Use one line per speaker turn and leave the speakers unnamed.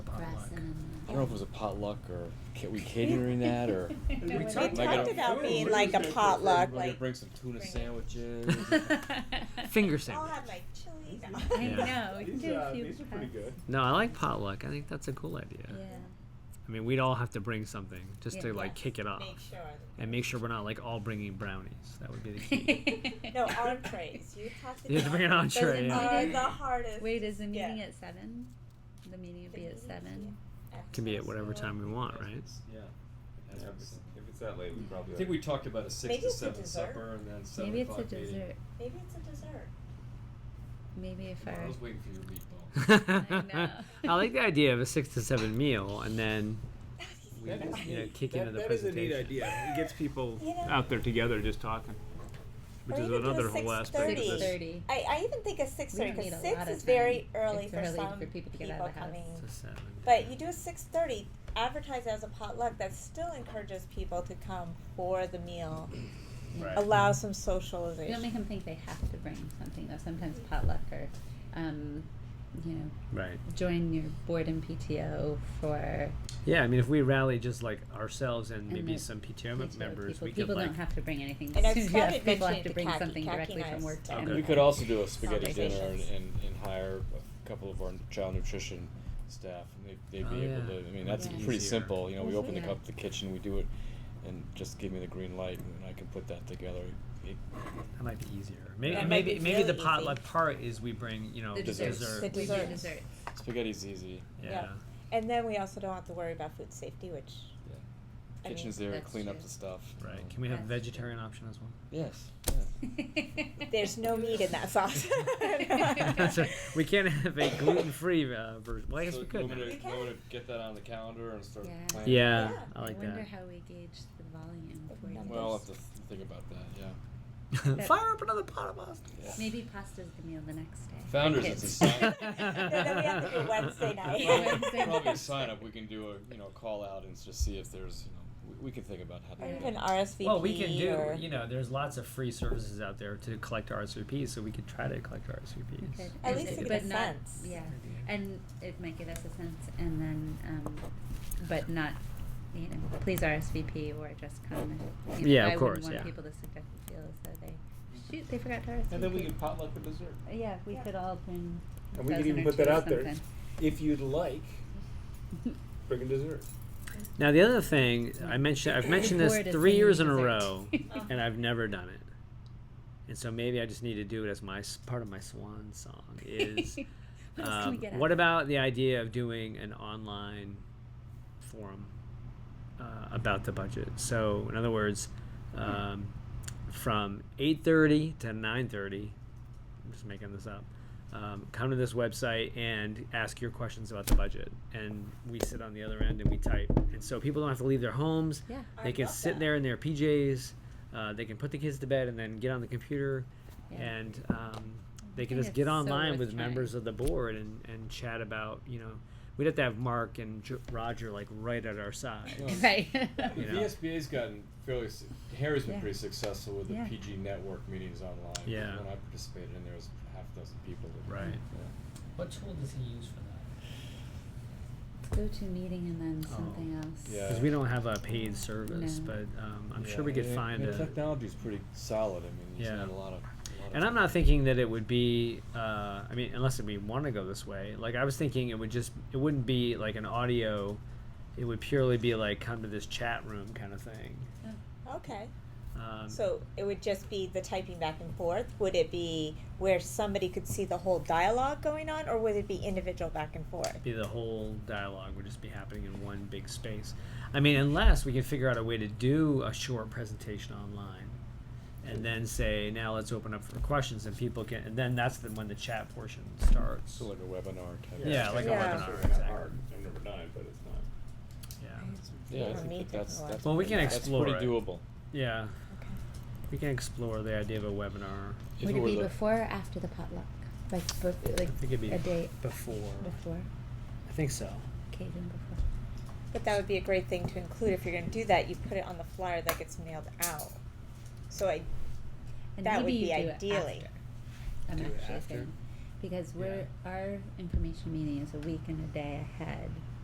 don't know if it was a potluck or ca- we catering that or.
No,
We
we
talked
didn't.
Like, I
about
don't-
about
Food.
being
Food.
like a potluck,
We're gonna
like
bring some tuna
Bring it.
sandwiches.
Finger
I'll
sandwich.
have like chili. No.
I
Yeah.
know. You can
These,
do a
uh,
few
these are pretty
cuts.
good.
No, I like potluck. I think that's a cool idea.
Yeah.
I mean, we'd all have to bring something just
Yeah.
to like kick it off
Make sure.
and make sure we're not like all bringing brownies. That would be the key.
No entrees. You have to.
You have to bring an
entree.
entree, yeah.
Are the hardest.
Wait, is the
Yeah.
meeting at seven? The meeting will be at seven.
Can be at whatever time we want, right?
Yeah.
Yeah, if it's- if it's that late, we probably.
I think we talked about a six
Maybe
to
it's a
seven
dessert.
supper and then seven
Maybe it's a
o'clock meeting.
dessert.
Maybe it's a dessert.
Maybe if
I
our
was waiting for your meatball.
I
know.
like the idea of a six to seven meal and then
We
That
didn't
is
you know,
neat.
kick
That-
into the
that is a
presentation.
neat idea. It gets people
You know-
out there together just talking, which
Or
is
even do a
another whole aspect of
six
6:30.
this.
thirty.
I, I even think a six
We
thirty
don't need
because
a lot
six
of
is very
time.
early
It's
for
early
some
for people to get out of the house.
coming.
It's a seven.
But you do a six thirty, advertise as a potluck. That still encourages people to come for the meal.
Right.
Allow some
You don't
socialization.
make them think they have to bring something though. Sometimes potluck or, um, you know,
Right.
join your board and PTO for
Yeah, I mean, if we rally just like ourselves and maybe
the
some PTO mem-
PTO
members,
people.
we
people
could like.
don't have to bring anything.
And I've
Yes,
started
people have
mentioning
to
to
bring
Khaki-
something
Khaki
directly
and I
from work to
Okay.
We
We
anyone.
could also do a spaghetti dinner and,
Conversations.
and, and hire a couple of our child nutrition staff. And they, they'd be
Oh,
able
yeah.
to, I mean, that's
Yeah.
pretty
Easier.
simple. You know, we
Mhm.
open the,
Yeah.
up the kitchen, we do it, and just give me the green light, and I can put that together. It-
That might be easier. Maybe
That might
maybe,
be
maybe the
really
potluck part is we bring you know
the
desserts.
desserts.
The
We do
desserts.
desserts.
spaghetti's easy.
Yeah.
Yeah. And then we also don't have to worry about food safety, which I mean,
Kitchen's there,
that's
clean up
true.
the stuff.
Right.
Um,
Can we have
That's
vegetarian option as well?
Yes. Yeah.
there's no meat in that sauce.
That's right. we can't have a gluten-free uh, version. Well, I guess
So
we
You
could.
want me
You
to, you
can.
want me to get that on the calendar and start
Yeah.
planning?
Yeah,
Yeah.
I like
wonder
that.
how we gauge the volume.
The
for you.
numbers.
Well, I'll have to th- think about that, yeah.
that-
Fire up another pot of pasta.
yeah.
Maybe pasta's the meal the next day.
Founders,
Kids.
it's a sign.
then we have to do Wednesday night.
Wednesday.
Probably a sign up, we can do a, you know, call out and just see if there's, you know, we, we can think about how
Or
to do
even
that.
RSVP.
Well, we can do.
E or-
You know, there's lots of free services out there to collect RSVPs, so we could try to collect
We
RSVPs.
could.
At
Is
least
it- but
to get a
not-
sense.
Yeah, and it might give us a sense, and then, um, but not, you know, please RSVP or just come. and, you know,
Yeah, of
I wouldn't
course,
want
yeah.
people to suggest feel as though they, shoot, they forgot to RSVP.
And then we can potluck the dessert.
Yeah, we could all bring. a
And we could
dozen
even
or
put that
two or
out there.
something.
If you'd like, bring a dessert.
Now, the other thing I mentioned, I've mentioned this
Board is
three years in
singing
a
dessert.
row, and I've never done it. And so maybe I just need to do it as my s- part of my swan song is.
What else can we
um,
get out
what
of it?
about the idea of doing an online forum uh, about the budget? So, in other words, um, from 8:30 to 9:30, I'm just making this up. Um, come to this website and ask your questions about the budget, and we sit on the other end and we type, and so people don't have to leave their homes.
Yeah.
I
They can
love
sit
that.
there in their PJs. Uh, they can put the kids to bed and then get on the computer,
Yeah.
and um, they can
think
just get
it's so
online
worth
with
trying.
members of the board and, and chat about you know we'd have to have Mark and J- Roger like right at our side.
Oh.
Yeah.
Right.
The
You know.
VSBA's gotten fairly, s- Harry's been
Yeah.
pretty successful with the
Yeah.
PG network meetings online.
Yeah.
When I participated in there was half a dozen people. that-
Right.
yeah.
What tool does he use for that?
Go to meeting and then
Oh.
something else.
Yeah.
Because we don't have a paid service,
No.
but um, I'm
Yeah,
sure we could
and-
find
and
a.
Technology's pretty solid, I mean, there's
Yeah.
not a lot of. a lot
And
of
I'm not thinking that it would be. Uh, I mean, unless we want to go this way. Like I was thinking, it would just. It wouldn't be like an audio. It would purely be like come to this chat room kind of thing.
Okay.
Um,
So it would just be the typing back and forth. Would it be where somebody could see the whole dialogue going on, or would it be individual back and forth?
be the whole dialogue would just be happening in one big space. I mean, unless we can figure out a way to do a short presentation online, and then say, now let's open up for questions, and people can, and then that's the, when the chat portion starts.
So like a webinar type.
Yeah, like
a Yeah. webinar,
Sort of
exactly.
hard. I've never done it, but it's not.
Yeah,
Yeah, I
For me,
think that that's,
technological.
that's.
Well, we
pretty-
can
that's
explore
Pretty
it.
doable.
yeah.
Okay.
We can explore the idea of a webinar.
If
Would
it
it
were
be
the-
before or after the potluck? Like, bef-
I think it'd
like
be
a day
before.
before,
I think so.
occasion before.
But that would be a great thing to include if you're going to do that. You put it on the flyer that gets mailed out. So I,
And
That
maybe
would be
you do it
ideally.
after, I'm
Do it
actually
after?
thinking. Because we're, our information meeting is a week and a day ahead